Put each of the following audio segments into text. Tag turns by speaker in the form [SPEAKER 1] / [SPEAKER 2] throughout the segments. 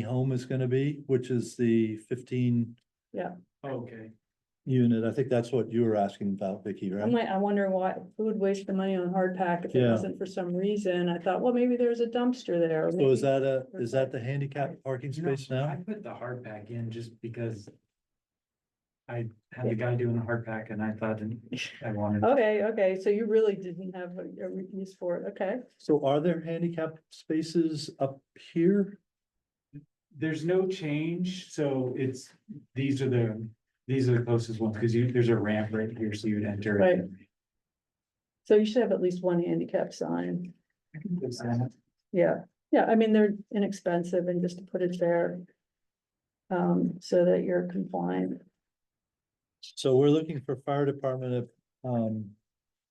[SPEAKER 1] home is gonna be, which is the fifteen
[SPEAKER 2] Okay.
[SPEAKER 1] unit. I think that's what you were asking about, Vicky,
[SPEAKER 3] I'm
[SPEAKER 1] right?
[SPEAKER 3] like, I wonder why, who would waste the money on hard pack if it
[SPEAKER 1] Yeah.
[SPEAKER 3] wasn't for some reason? I thought, well, maybe there's a dumpster there. or
[SPEAKER 1] So Oh, is
[SPEAKER 3] maybe-
[SPEAKER 1] that a, is that the handicap parking
[SPEAKER 2] You know,
[SPEAKER 1] space
[SPEAKER 2] I
[SPEAKER 1] now?
[SPEAKER 2] put the hard pack in just because. I had the guy doing the hard pack and I thought I wanted.
[SPEAKER 3] Okay, okay, so you really didn't have a, a use for it, okay.
[SPEAKER 1] So are there handicap spaces up here?
[SPEAKER 2] There's no change, so it's, these are the, these are the closest ones, because you, there's a ramp right here, so you'd enter. it.
[SPEAKER 3] Right. So you should have at least one handicap sign.
[SPEAKER 2] I can fix that.
[SPEAKER 3] Yeah, yeah, I mean, they're inexpensive and just to put it there. Um, so that you're compliant.
[SPEAKER 1] So we're looking for fire department, um,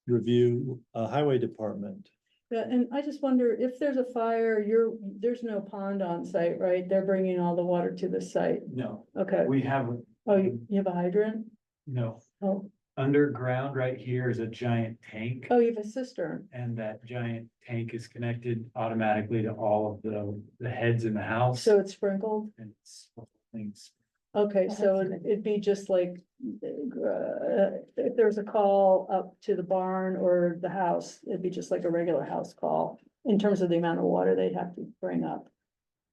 [SPEAKER 1] review, uh, highway department.
[SPEAKER 3] Yeah, and I just wonder if there's a fire, you're, there's no pond on site, right? They're bringing all the water to the site.
[SPEAKER 2] No,
[SPEAKER 3] Okay.
[SPEAKER 2] we have,
[SPEAKER 3] Oh, you, you have a hydrant?
[SPEAKER 2] no,
[SPEAKER 3] Oh,
[SPEAKER 2] underground right here is a giant tank.
[SPEAKER 3] oh, you have a cistern.
[SPEAKER 2] And that giant tank is connected automatically to all of the, the heads in the house.
[SPEAKER 3] So it's sprinkled?
[SPEAKER 2] And it's- things.
[SPEAKER 3] Okay,
[SPEAKER 4] Oh,
[SPEAKER 3] so
[SPEAKER 4] that's
[SPEAKER 3] it- it'd be just like, uh, if there's a call up to the barn or the house, it'd be just like a regular house call in terms of the amount of water they'd have to bring up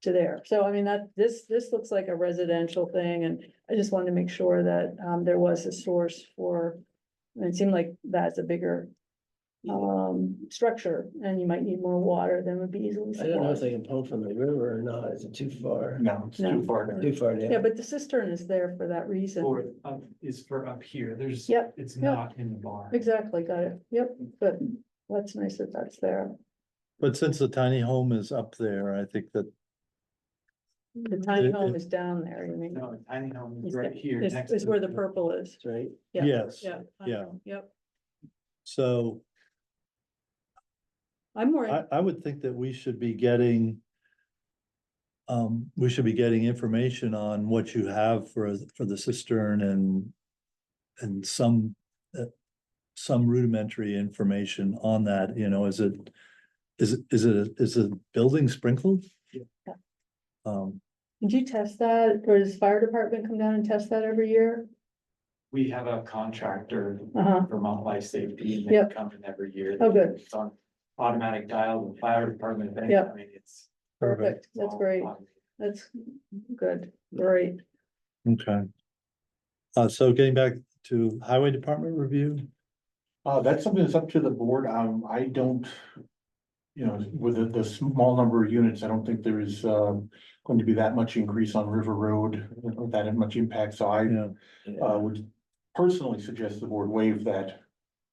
[SPEAKER 3] to there. So I mean, that, this, this looks like a residential thing and I just wanted to make sure that, um, there was a source for, it seemed like that's a bigger um, structure and you might need more water than would be easily
[SPEAKER 4] I don't know if
[SPEAKER 3] supplied.
[SPEAKER 4] they can pump from the river or not, is it too far?
[SPEAKER 2] No, it's
[SPEAKER 3] No.
[SPEAKER 2] too far.
[SPEAKER 4] Too far
[SPEAKER 3] Yeah,
[SPEAKER 4] down.
[SPEAKER 3] but the cistern is there for that reason.
[SPEAKER 2] For, up, um, is for up here, there's.
[SPEAKER 3] Yep,
[SPEAKER 2] It's
[SPEAKER 3] yep.
[SPEAKER 2] not in the barn.
[SPEAKER 3] Exactly, got it, yep, but that's nice that that's there.
[SPEAKER 1] But since the tiny home is up there, I think that,
[SPEAKER 3] The tiny
[SPEAKER 1] It-
[SPEAKER 3] home
[SPEAKER 1] it-
[SPEAKER 3] is down there, you mean?
[SPEAKER 2] No, I think home
[SPEAKER 3] Is
[SPEAKER 2] is right
[SPEAKER 3] that-
[SPEAKER 2] here.
[SPEAKER 3] Is,
[SPEAKER 2] next
[SPEAKER 3] is
[SPEAKER 2] to
[SPEAKER 3] where the purple is,
[SPEAKER 4] Right,
[SPEAKER 3] yeah.
[SPEAKER 1] Yes,
[SPEAKER 3] Yeah. tiny
[SPEAKER 1] yeah.
[SPEAKER 3] home, Yep,
[SPEAKER 1] so
[SPEAKER 3] I'm worried,
[SPEAKER 1] I, I would think that we should be getting. Um, we should be getting information on what you have for, for the cistern and. And some, uh, some rudimentary information on that, you know, is it, is, it is it, is the building sprinkled?
[SPEAKER 2] Yeah.
[SPEAKER 3] Yeah.
[SPEAKER 1] Um,
[SPEAKER 3] did you test that, or does fire department come down and test that every year?
[SPEAKER 2] We have a contractor,
[SPEAKER 3] Uh-huh,
[SPEAKER 2] Vermont Life Safety, and they
[SPEAKER 3] Yep.
[SPEAKER 2] come in every year.
[SPEAKER 3] Oh, good.
[SPEAKER 2] It's on automatic dial, the fire department, if anything,
[SPEAKER 3] Yep.
[SPEAKER 2] I mean, it's.
[SPEAKER 1] perfect,
[SPEAKER 3] perfect, that's
[SPEAKER 2] all
[SPEAKER 3] great,
[SPEAKER 2] automated.
[SPEAKER 3] that's good, great.
[SPEAKER 1] okay. Uh, so getting back to highway department review,
[SPEAKER 5] Uh, that's something that's up to the board. Um, I don't. You know, with the, the small number of units, I don't think there is, um, going to be that much increase on River Road, or that much impact, so I,
[SPEAKER 1] yeah,
[SPEAKER 4] Um,
[SPEAKER 5] uh, would. Personally suggest the board waive that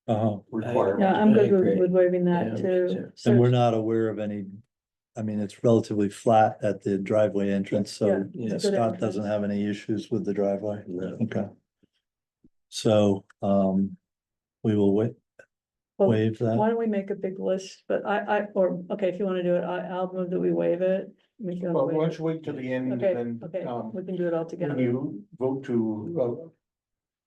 [SPEAKER 1] uh-huh,
[SPEAKER 3] Yeah,
[SPEAKER 5] requirement.
[SPEAKER 3] I'm good
[SPEAKER 4] I
[SPEAKER 3] with,
[SPEAKER 4] agree.
[SPEAKER 3] with waiving that
[SPEAKER 4] Yeah,
[SPEAKER 3] too.
[SPEAKER 4] sure.
[SPEAKER 3] So-
[SPEAKER 1] and we're not aware of any. I mean, it's relatively flat at the driveway entrance,
[SPEAKER 3] Yeah,
[SPEAKER 1] so
[SPEAKER 4] yeah,
[SPEAKER 3] good
[SPEAKER 1] Scott doesn't
[SPEAKER 3] entrance.
[SPEAKER 1] have any issues with the driveway.
[SPEAKER 4] no.
[SPEAKER 1] Okay. So, um, we will wait,
[SPEAKER 3] Well,
[SPEAKER 1] waive that.
[SPEAKER 3] Why don't we make a big list, but I, I, or, okay, if you wanna do it, I, I'll move that we waive it. Make it a
[SPEAKER 5] Well,
[SPEAKER 3] waive.
[SPEAKER 5] let's wait till the end,
[SPEAKER 3] Okay,
[SPEAKER 5] and
[SPEAKER 3] okay,
[SPEAKER 5] then, um,
[SPEAKER 3] we can do it all
[SPEAKER 5] when
[SPEAKER 3] together.
[SPEAKER 5] you vote to,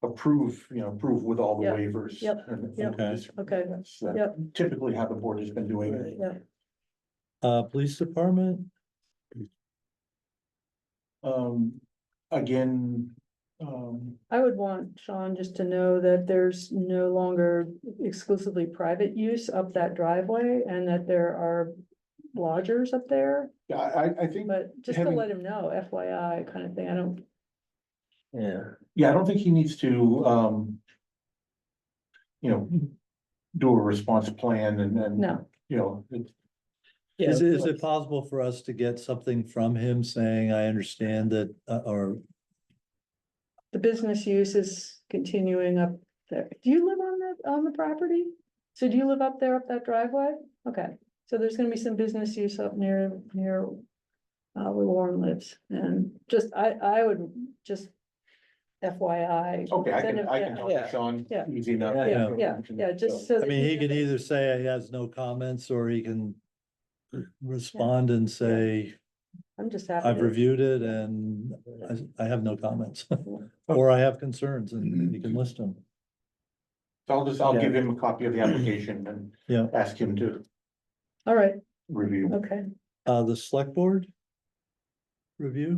[SPEAKER 5] uh. Approve, you know, approve with all the
[SPEAKER 3] Yep,
[SPEAKER 5] waivers.
[SPEAKER 3] yep,
[SPEAKER 5] and-
[SPEAKER 3] yep.
[SPEAKER 1] Okay.
[SPEAKER 3] Okay,
[SPEAKER 5] That's uh,
[SPEAKER 3] yep.
[SPEAKER 5] typically how the board has been doing it.
[SPEAKER 4] Right.
[SPEAKER 3] Yeah.
[SPEAKER 1] Uh, police department,
[SPEAKER 5] Um, again, um.
[SPEAKER 3] I would want Sean just to know that there's no longer exclusively private use up that driveway and that there are lodgers up there,
[SPEAKER 5] Yeah, I, I- I think,
[SPEAKER 3] but just to
[SPEAKER 5] Having-
[SPEAKER 3] let him know, FYI kind of thing, I don't,
[SPEAKER 4] Yeah,
[SPEAKER 5] yeah, I don't think he needs to, um. You know, do a response plan and then,
[SPEAKER 3] no.
[SPEAKER 5] you know, it-
[SPEAKER 4] yeah.
[SPEAKER 1] is,
[SPEAKER 4] of
[SPEAKER 1] it- is it
[SPEAKER 4] course.
[SPEAKER 1] possible for us to get something from him saying, I understand that, uh, or,
[SPEAKER 3] The business use is continuing up there. Do you live on that, on the property? So do you live up there, up that driveway? Okay, so there's gonna be some business use up near, near uh, where Warren lives, and just, I, I would just FYI.
[SPEAKER 5] okay, I
[SPEAKER 3] send
[SPEAKER 5] can,
[SPEAKER 3] him-
[SPEAKER 5] I
[SPEAKER 3] yeah.
[SPEAKER 5] can talk
[SPEAKER 4] Yeah.
[SPEAKER 5] to Sean
[SPEAKER 3] Yeah.
[SPEAKER 5] easy enough.
[SPEAKER 4] Yeah,
[SPEAKER 1] yeah.
[SPEAKER 3] Yeah, yeah, just so.
[SPEAKER 1] I
[SPEAKER 3] that
[SPEAKER 1] mean, he can
[SPEAKER 3] knows.
[SPEAKER 1] either say he has no comments, or he can respond and say,
[SPEAKER 3] I'm just happy.
[SPEAKER 1] e- I've
[SPEAKER 3] to-
[SPEAKER 1] reviewed it and I, I have no comments. Or I have concerns and you can list them.
[SPEAKER 5] So I'll just, I'll
[SPEAKER 4] Yeah.
[SPEAKER 5] give him a copy of the application and.
[SPEAKER 1] Yeah.
[SPEAKER 5] Ask him to
[SPEAKER 3] All right,
[SPEAKER 5] review.
[SPEAKER 3] okay.
[SPEAKER 1] Uh, the select board? review?